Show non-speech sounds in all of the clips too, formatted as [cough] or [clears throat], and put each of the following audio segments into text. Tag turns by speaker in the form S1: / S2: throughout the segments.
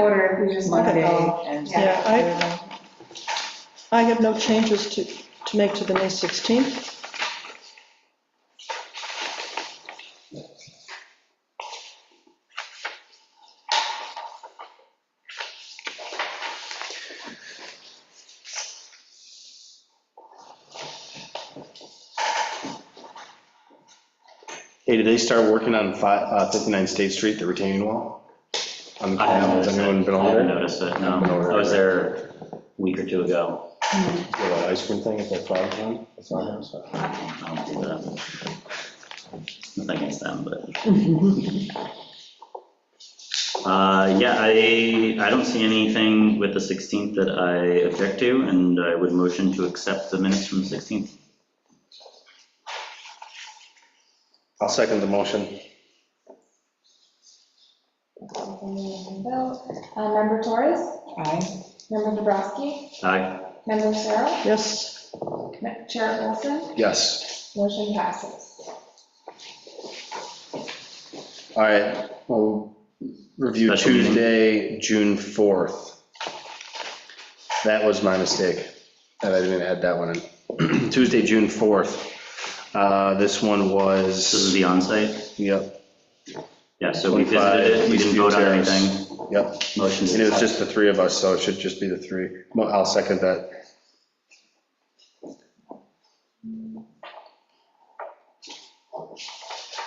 S1: order if we just let it go.
S2: and.
S1: Yeah.
S3: Yeah, I, I have no changes to, to make to the May 16th.
S4: Hey, did they start working on fi- uh, 59 State Street, the retaining wall? On the
S5: I
S4: canal,
S5: haven't
S4: has
S5: noticed it.
S4: anyone been
S5: Oh, I
S4: over
S5: haven't
S4: there?
S5: noticed it, no. I was there a week or two ago.
S4: Yeah, that ice cream thing at that flower farm? That's not there, so.
S5: I don't see that. Nothing against
S4: [laughs]
S5: them, but. Uh, Yeah, I, I don't see anything with the 16th that I object to, and I would motion to accept the minutes from the 16th.
S4: I'll second the motion.
S1: Uh, Member Torres?
S2: Aye.
S1: Member Dubrasky?
S5: Aye.
S1: Member Cheryl?
S3: Yes,
S1: Chair Olson?
S4: Yes.
S1: Motion passes.
S4: All right, we'll review
S5: Special meeting.
S4: Tuesday, June 4th. That was my mistake, that I didn't add that one in. [clears throat] Tuesday, June 4th. Uh, This one
S5: This is
S4: was,
S5: the onsite.
S4: yep,
S5: Yeah, so we
S4: 25,
S5: visited it, we didn't
S4: Eastview
S5: vote on
S4: Terrace.
S5: anything.
S4: yep.
S5: Motion
S4: And it
S5: to
S4: was
S5: accept.
S4: just the three of us, so it should just be the three. Well, I'll second that.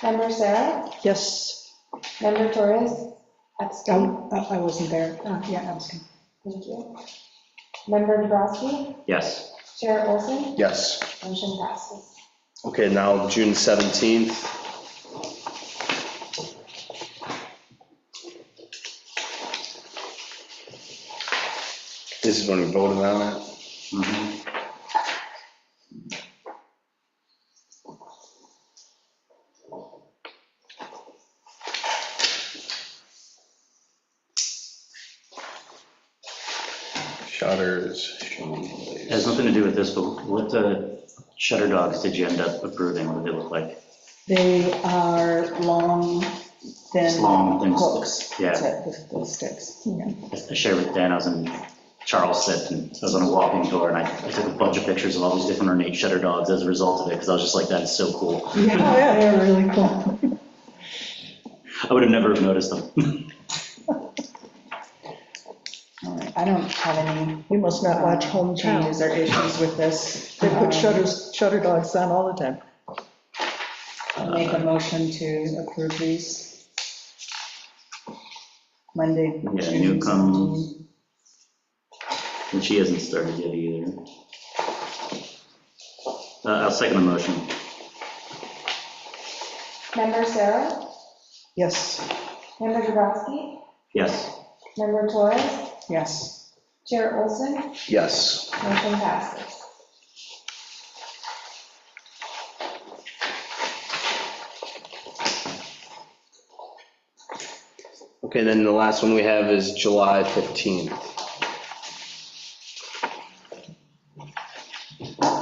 S1: Member Sarah?
S3: yes,
S1: Member Torres? Abstain.
S2: Oh, I I wasn't there. Uh, Yeah, I was. gonna-
S1: Thank you. Member Dubrasky?
S5: Yes.
S1: Chair Olson?
S4: Yes.
S1: Motion passes.
S4: Okay, now June 17th. This is when we voted on it.
S5: Mhm.
S4: Shutters.
S5: It has nothing to do with this, but what uh, shutter dogs did you end up approving? What did they look like?
S2: They are long,
S5: It's
S2: thin
S5: long, thin
S2: hooks.
S5: sticks. Yeah,
S2: That's it, Those sticks. Yeah.
S5: I shared with Dan, I was in Charleston, I was on a walking tour, and I I took a bunch of pictures of all these different ornate shutter dogs as a result of it, because I was just like, that is so cool.
S2: Oh, yeah, they're really cool.
S5: I would have never have noticed them. [laughs]
S2: All right, I don't have any
S3: we must not watch
S2: um,
S3: hometown.
S2: changes or issues with this.
S3: They
S2: Um,
S3: put shutters, shutter dogs on all the time.
S2: Make a motion to approve these. Monday.
S5: Yeah,
S2: June
S5: Newcomb.
S2: 17.
S5: And she hasn't started yet either. Uh, I'll second the motion.
S1: Member Sarah?
S3: Yes,
S1: Member Dubrasky?
S5: Yes,
S1: Member Torres?
S2: Yes.
S1: Chair Olson? Motion
S4: Yes.
S1: passes.
S4: Okay, then the last one we have is July 15th.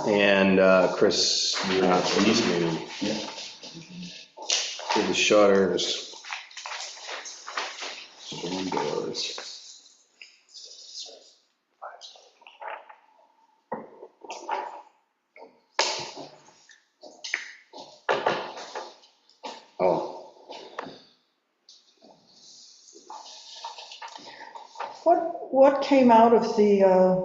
S4: And uh, Chris, you're not for this meeting.
S5: Yeah.
S4: For the shutters. Windows. Oh.
S3: what, what came out of the uh,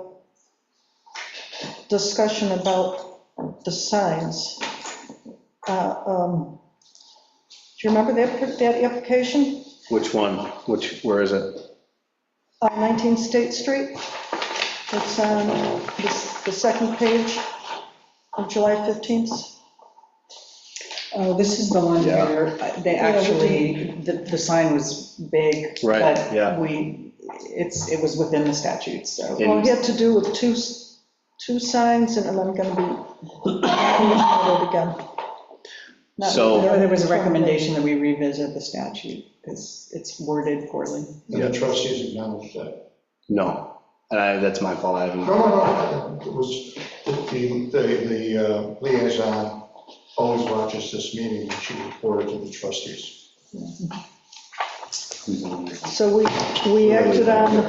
S3: discussion about the signs? Uh, um, Do you remember that, that application,
S4: Which one? Which, where is it?
S3: Uh, 19 State Street? It's on the the second page of July 15th.
S2: Oh, this is the one
S4: Yeah.
S2: where uh, they
S3: Yeah, we
S2: actually, the, the sign was big.
S4: Right, yeah.
S2: But we, it's, it was within the statute, so.
S3: Well, it
S4: And
S3: had to do with two, s- two signs, and I'm gonna be,
S2: [coughs]
S3: reading it again.
S2: Not-
S4: So-
S2: There there was a recommendation that we revisit the statute, because it's worded poorly.
S6: And the trustees acknowledged that.
S4: No, And I- that's my fault. I haven't,
S6: No, no, no, it was, the, the, the uh, liaison always watches this meeting, and she reported to the trustees.
S5: Mhm.
S3: So we, we acted on the